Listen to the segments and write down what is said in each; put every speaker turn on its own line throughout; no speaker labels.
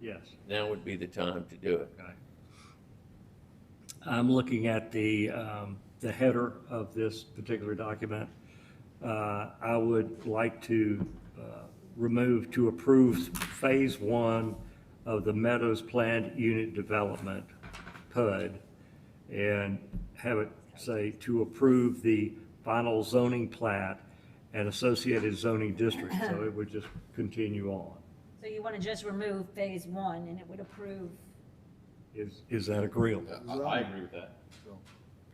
Yes,
now would be the time to do it.
okay. I'm looking at the, um, the header of this particular document. Uh, I would like to uh, remove to approve Phase One of the Meadows Planned Unit Development, PUD, and have it say to approve the final zoning plat and associated zoning district, so it would just continue on.
So you want to just remove phase one and it would approve,
Is, is that agreeable?
I, I agree with that.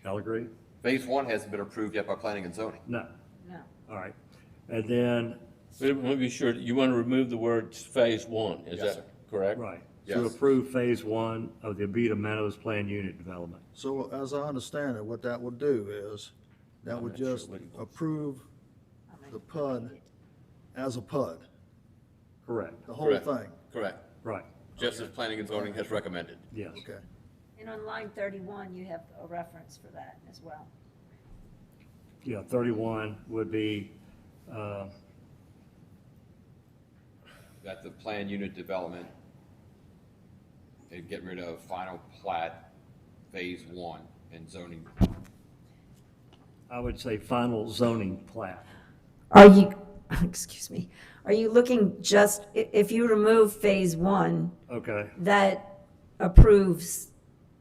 Y'all agree?
Phase one hasn't been approved yet by planning and zoning.
No,
no.
all right. And then,
But I want to be sure, you want to remove the words phase one, is
Yes,
that
sir.
correct?
right, to
Yes.
approve Phase One of the Abita Meadows Plan Unit Development.
So as I understand it, what that would do is, that would just approve
I'm gonna
the PUD as a PUD,
Correct,
the whole
Correct.
thing,
Correct,
right,
just as planning and zoning has recommended.
yes.
okay?
And on line thirty-one, you have a reference for that as well.
Yeah, 31 would be, uh,
That the plan unit development, and get rid of final plat, phase one, and zoning.
I would say final zoning plat.
Are you, excuse me, are you looking just, i- if you remove phase one,
Okay,
that approves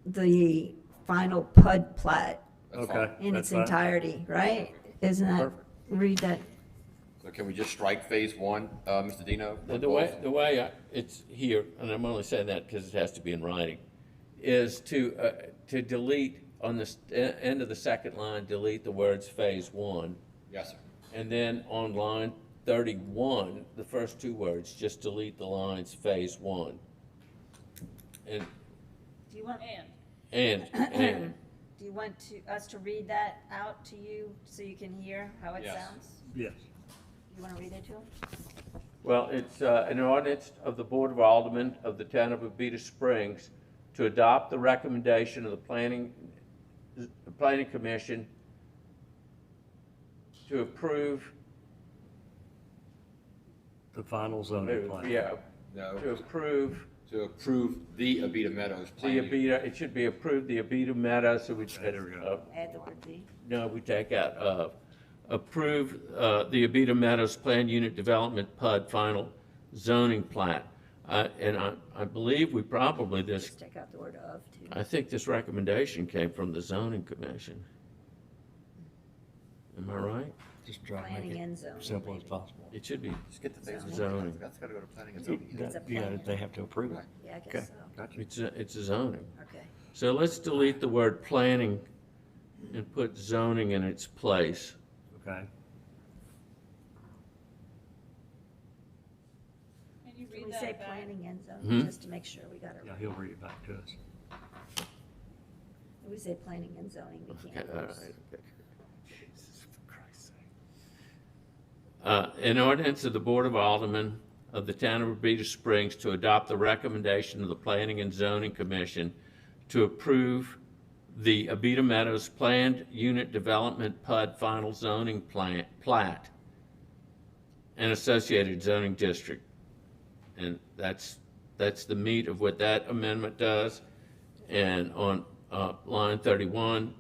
the final PUD plat
That's
Okay.
fine.
in
That's
its
fine.
entirety, right? Isn't that,
Perfect.
read that,
So can we just strike phase one, uh, Mr. Dino?
Well, The way, the way I- it's here, and I'm only saying that because it has to be in writing, is to, uh, to delete on the st- e- end of the second line, delete the words phase one.
Yes, sir.
And then on line thirty-one, the first two words, just delete the lines phase one. And,
do you want,
and, and,
do you want to, us to read that out to you so you can hear how it
Yes.
sounds?
yes.
You want to read it to him?
Well, it's uh, an ordinance of the Board of Aldermen of the town of Abita Springs to adopt the recommendation of the planning, the planning commission to approve,
The final zoning plat.
uh, yeah,
No.
to approve
To approve the Abita Meadows plan.
the
unit.
Abita, it should be approved the Abita Meadows, so we. uh,
There we go.
Add the word "the."
No, we take out, uh, approve, uh, the Abita Meadows Plan Unit Development PUD Final Zoning Plat. Uh, and I, I believe we probably, this
Just take out the word of too.
I think this recommendation came from the zoning commission. Am I right?
Just try to
Planning
make it
and zoning.
simple as possible.
It should be,
Just get the phase one,
Zoning.
that's gotta go to planning and zoning.
It's a
You gotta-
plan.
They have to approve it.
Yeah, I
Okay.
guess so.
Gotcha.
it's, a- it's a zoning.
Okay.
So let's delete the word planning and put zoning in its place.
Okay,
Can you
Can
read
we say
that back?
planning and
Hmm?
zoning, just to make sure we got it
yeah,
right?
he'll read it back to us.
If We say planning and zoning, we
Okay,
can't.
all right,
use-
okay. Jesus, for Christ's sake. Uh, An ordinance of the Board of Aldermen of the Town of Abita Springs to adopt the recommendation of the Planning and Zoning Commission to approve the Abita Meadows Planned Unit Development PUD Final Zoning Plan- Plat and Associated Zoning District. And that's, that's the meat of what that amendment does. And on uh, line 31,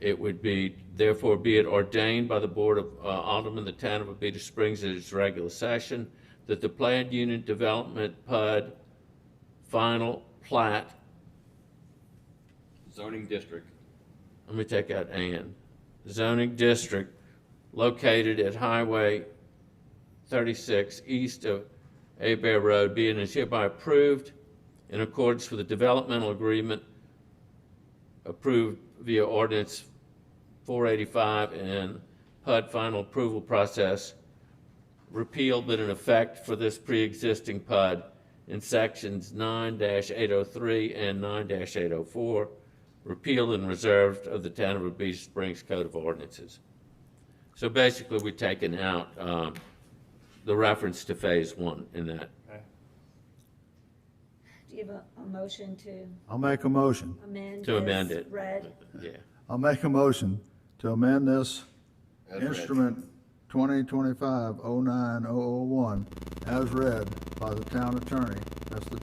it would be, therefore be it ordained by the Board of uh, Aldermen, of the Town of Abita Springs at its regular session, that the planned unit development PUD final plat,
Zoning district,
let me take out and, zoning district located at Highway 36 east of Abear Road be and is hereby approved in accordance with the developmental agreement approved via ordinance 485 and HUD final approval process repealed but in effect for this pre-existing PUD in sections 9-803 and 9-804, repealed and reserved of the Town of Abita Springs Code of Ordinances. So basically, we're taking out um, the reference to Phase One in that.
Do you have a, a motion to
I'll make a motion.
amend?
To amend
as
it.
Read,
Yeah.
I'll make a motion to amend this
as read.
instrument twenty twenty-five oh nine oh oh one as read by the town attorney. That's the